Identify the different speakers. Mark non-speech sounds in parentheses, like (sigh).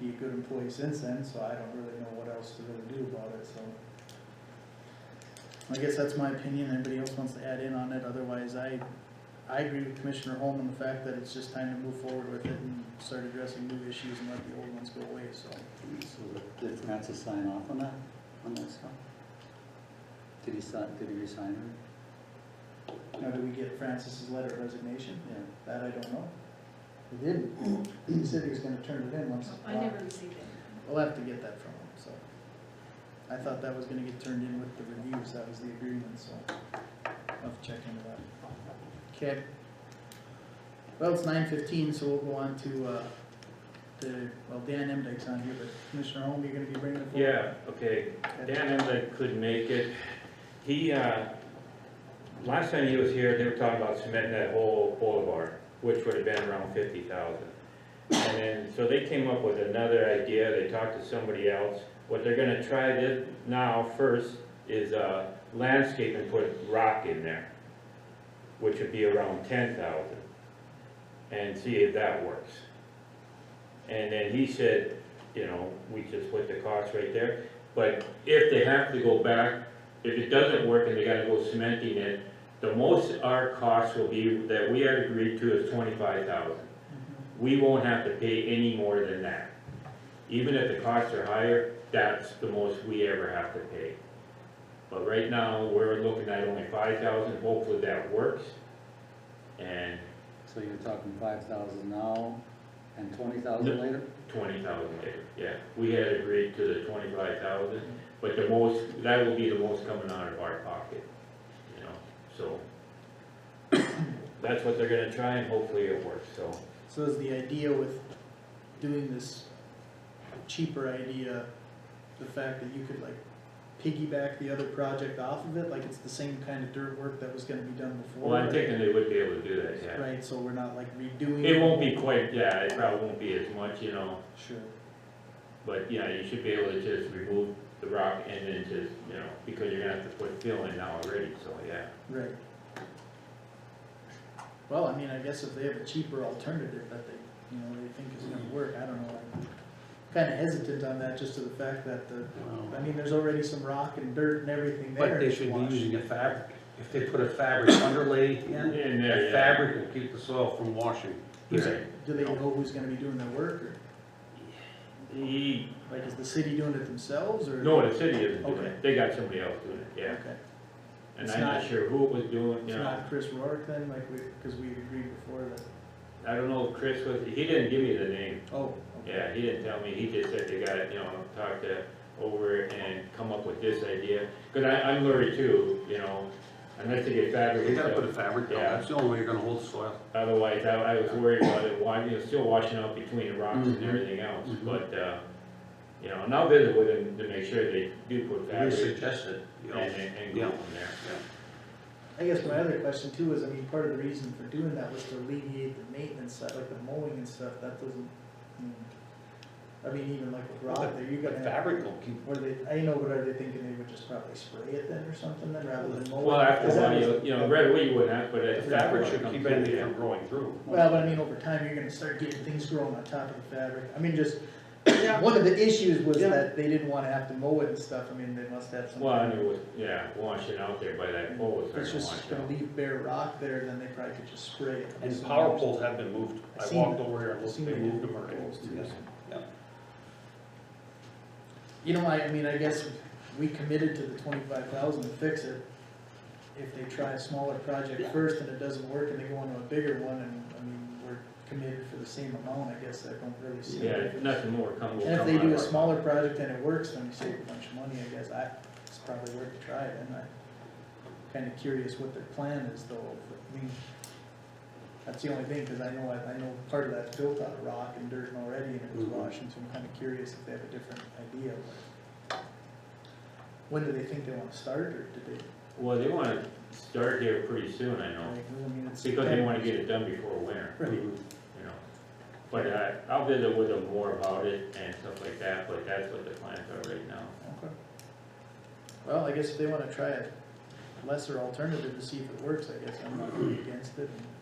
Speaker 1: be a good employee since then, so I don't really know what else to really do about it, so. I guess that's my opinion, anybody else wants to add in on it, otherwise I, I agree with Commissioner Holm on the fact that it's just time to move forward with it and start addressing new issues and let the old ones go away, so.
Speaker 2: So did Francis sign off on that, on that stuff? Did he sign, did he resign it?
Speaker 1: Now, do we get Francis's letter of resignation?
Speaker 2: Yeah.
Speaker 1: That I don't know. He didn't, he said he was gonna turn it in once.
Speaker 3: I never received it.
Speaker 1: We'll have to get that from him, so. I thought that was gonna get turned in with the reviews, that was the agreement, so I'll have to check into that. Okay. Well, it's nine fifteen, so we'll go on to, uh, the, well, Dan Emdike's on here, but Commissioner Holm, you're gonna be bringing it forward?
Speaker 4: Yeah, okay, Dan Emmerich couldn't make it. He, uh, last time he was here, they were talking about cementing that whole boulevard, which would have been around fifty thousand. And then, so they came up with another idea, they talked to somebody else. What they're gonna try this now first is, uh, landscape and put rock in there, which would be around ten thousand, and see if that works. And then he said, you know, we just put the cost right there. But if they have to go back, if it doesn't work and they gotta go cementing it, the most our cost will be that we had agreed to is twenty-five thousand. We won't have to pay any more than that. Even if the costs are higher, that's the most we ever have to pay. But right now, we're looking at only five thousand, hopefully that works. And
Speaker 2: So you're talking five thousand now and twenty thousand
Speaker 4: No.
Speaker 2: later?
Speaker 4: twenty thousand later, yeah. We had agreed to the twenty-five thousand, but the most, that will be the most coming out of our pocket, you know, so. That's what they're gonna try and hopefully it works, so.
Speaker 1: So is the idea with doing this cheaper idea, the fact that you could like piggyback the other project off of it, like it's the same kind of dirt work that was gonna be done before?
Speaker 4: Well, I'm thinking they would be able to do that, yeah.
Speaker 1: Right, so we're not like redoing.
Speaker 4: It won't be quite, yeah, it probably won't be as much, you know,
Speaker 1: Sure,
Speaker 4: but yeah, you should be able to just remove the rock and then just, you know, because you're gonna have to put fill in now already, so yeah.
Speaker 1: right. Well, I mean, I guess if they have a cheaper alternative that they, you know, they think is gonna work, I don't know. I'm Kinda hesitant on that, just to the fact that the, I mean, there's already some rock and dirt and everything there.
Speaker 5: But they
Speaker 1: to
Speaker 5: should be
Speaker 1: wash.
Speaker 5: using a fabric, if they put a fabric underlay
Speaker 4: And uh,
Speaker 5: in,
Speaker 4: there,
Speaker 5: the
Speaker 4: yeah.
Speaker 5: fabric will keep the soil from washing.
Speaker 1: Who's-
Speaker 4: Right.
Speaker 1: Do they know who's gonna be doing the work, or,
Speaker 4: He,
Speaker 1: like, is the city doing it themselves, or?
Speaker 4: no, the city isn't doing
Speaker 1: Okay.
Speaker 4: it, they got somebody else doing it, yeah.
Speaker 1: Okay,
Speaker 4: And
Speaker 1: It's
Speaker 4: I'm not
Speaker 1: not-
Speaker 4: sure who it was doing,
Speaker 1: it's
Speaker 4: you know,
Speaker 1: not Chris Rourke then, like, we, cause we agreed before that,
Speaker 4: I don't know if Chris was, he didn't give me the name,
Speaker 1: oh, okay.
Speaker 4: yeah, he didn't tell me, he just said they got it, you know, talked to over and come up with this idea. Cause I, I'm worried too, you know, unless they get fabric
Speaker 5: You
Speaker 4: and
Speaker 5: gotta put a
Speaker 4: stuff,
Speaker 5: fabric down,
Speaker 4: Yeah.
Speaker 5: that's the only way you're gonna hold the soil.
Speaker 4: otherwise I, I was worried about it, why, you know, still washing out between the rocks and
Speaker 5: Mhm.
Speaker 4: everything else,
Speaker 5: Mhm.
Speaker 4: but, uh, you know, and I'll visit with them to make sure they do put
Speaker 5: We
Speaker 4: fabric
Speaker 5: suggested, you
Speaker 4: and,
Speaker 5: know.
Speaker 4: and and go
Speaker 5: Yeah.
Speaker 4: from there.
Speaker 1: I guess my other question too is, I mean, part of the reason for doing that was to alleviate the maintenance side, like the mowing and stuff, that doesn't, hmm. I mean, even like with rock there, you're
Speaker 5: But
Speaker 1: gonna have,
Speaker 5: fabric will keep,
Speaker 1: what are they, I know, but are they thinking they would just probably spray it then or something then, rather than mow it?
Speaker 4: Well, after a
Speaker 1: Is that-
Speaker 4: while, you, you know, right away you wouldn't have, but
Speaker 5: the
Speaker 4: it's.
Speaker 5: fabric should keep anything from growing through.
Speaker 1: Well, but I mean, over time, you're gonna start getting things growing on top of the fabric, I mean, just, one of the issues was
Speaker 5: Yeah.
Speaker 1: that they didn't wanna have to mow it and stuff, I mean, they must have some.
Speaker 4: Well, and it was, yeah, washing out there by that pole, it's
Speaker 1: It's
Speaker 4: starting to
Speaker 1: just
Speaker 4: wash
Speaker 1: gonna
Speaker 4: out.
Speaker 1: leave bare rock there, then they probably could just spray it.
Speaker 5: And power poles have been moved,
Speaker 1: I
Speaker 5: I
Speaker 1: seen
Speaker 5: walked
Speaker 1: that.
Speaker 5: over here and looked,
Speaker 1: Seen
Speaker 5: they
Speaker 1: it.
Speaker 5: moved them already.
Speaker 1: Poles,
Speaker 5: Yeah.
Speaker 1: You know, I, I mean, I guess we committed to the twenty-five thousand to fix it. If they try a smaller project
Speaker 5: Yeah.
Speaker 1: first and it doesn't work and they go on to a bigger one and, I mean, we're committed for the same amount, I guess I don't really see.
Speaker 4: Yeah,
Speaker 1: it.
Speaker 4: if nothing more come, will come
Speaker 1: And
Speaker 4: out.
Speaker 1: if they do a
Speaker 4: of it.
Speaker 1: smaller project and it works, then we save a bunch of money, I guess, I, it's probably worth a try, and I'm kinda curious what their plan is though, I mean, that's the only thing, cause I know, I know part of that's built out of rock and dirt and already, and it was
Speaker 4: Mm-hmm.
Speaker 5: Mhm.
Speaker 1: washing, so I'm kinda curious if they have a different idea, but when do they think they wanna start, or did they,
Speaker 4: Well, they wanna start here pretty soon, I know,
Speaker 1: like, I mean, it's.
Speaker 4: because they wanna get it done before winter,
Speaker 1: Right,
Speaker 4: you know. But I, I'll visit with them more about it and stuff like that, but that's what the plans are right now.
Speaker 1: okay. Well, I guess if they wanna try a lesser alternative to see if it (coughs) works, I guess I'm not really against it, and